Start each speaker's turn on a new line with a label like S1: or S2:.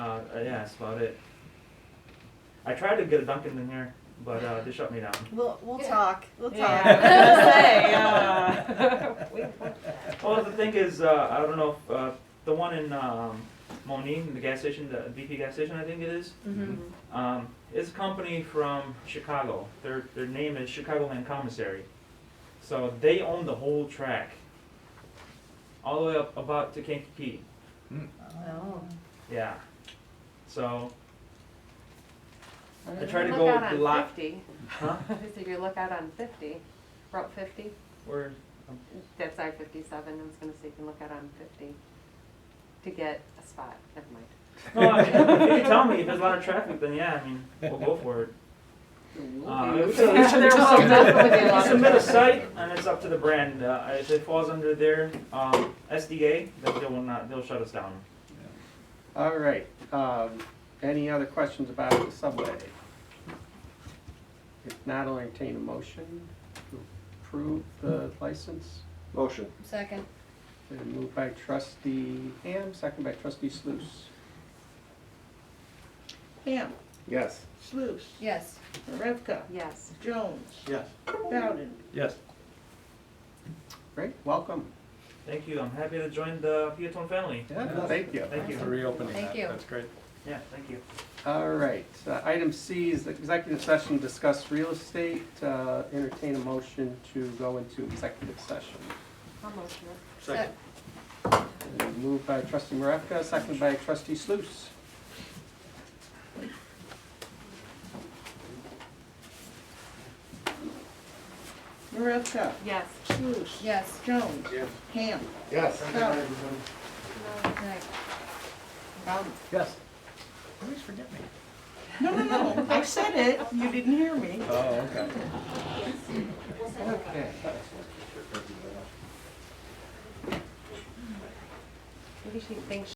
S1: I didn't ask uh, about it. I tried to get a Duncan in here, but uh, they shut me down.
S2: We'll, we'll
S3: Yeah.
S2: talk, we'll talk.
S3: Yeah.
S2: I was gonna say, uh,
S3: We want that.
S1: Well, the thing is, uh, I don't know if uh, the one in um, Moline, the gas station, the BP gas station, I think it is.
S3: Mm-hmm.
S1: Um, it's a company from Chicago. Their their name is Chicagoland Commissary. So they own the whole track, all the way up about to Kankakee.
S2: Oh.
S1: Yeah. So I
S3: If
S1: tried
S3: you
S1: to
S3: look
S1: go
S3: out
S1: with the
S3: on
S1: lot.
S3: 50,
S1: Huh?
S3: If you look out on fifty, Route fifty,
S1: Where?
S3: that's I fifty-seven, I was gonna say you can look out on fifty to get a spot, never mind.
S1: No, I mean, if you tell me if there's a lot of traffic, then yeah, I mean, we'll go for it. Uh, we should- we should
S3: There will
S1: submit-
S3: definitely be a lot
S1: we
S3: of
S1: submit a
S3: traffic.
S1: site, and it's up to the brand. Uh, if it falls under their um, SDA, then they will not. They'll shut us down.
S4: All right, um, any other questions about the subway? If not, I'll entertain a motion to approve the license.
S5: Motion.
S3: Second.
S4: Been moved by trustee Ham, second by trustee Sluse.
S6: Ham,
S5: Yes.
S6: Sluse,
S3: Yes.
S6: Revka,
S3: Yes.
S6: Jones,
S5: Yes.
S6: Bowden.
S5: Yes.
S4: Great, welcome.
S1: Thank you. I'm happy to join the Peatone family.
S4: Yeah, thank you.
S1: Thank you.
S5: For reopening
S3: Thank
S5: that,
S3: you.
S5: that's great.
S1: Yeah, thank you.
S4: All right, uh, item C is the executive session, to discuss real estate, uh, entertain a motion to go into executive session.
S3: Almost, no.
S5: Second.
S4: Been Moved by trustee Maravka, second by trustee Sluse.
S6: Marevka,
S3: Yes.
S6: Sluse.
S3: Yes.
S6: Jones.
S5: Yes.
S6: Ham,
S5: Yes.
S6: Bowden. Bowden.
S5: Yes.
S6: Always forget me. No, no, no, I said it, you didn't hear me.
S5: Oh, okay.
S4: Okay.
S3: Maybe she thinks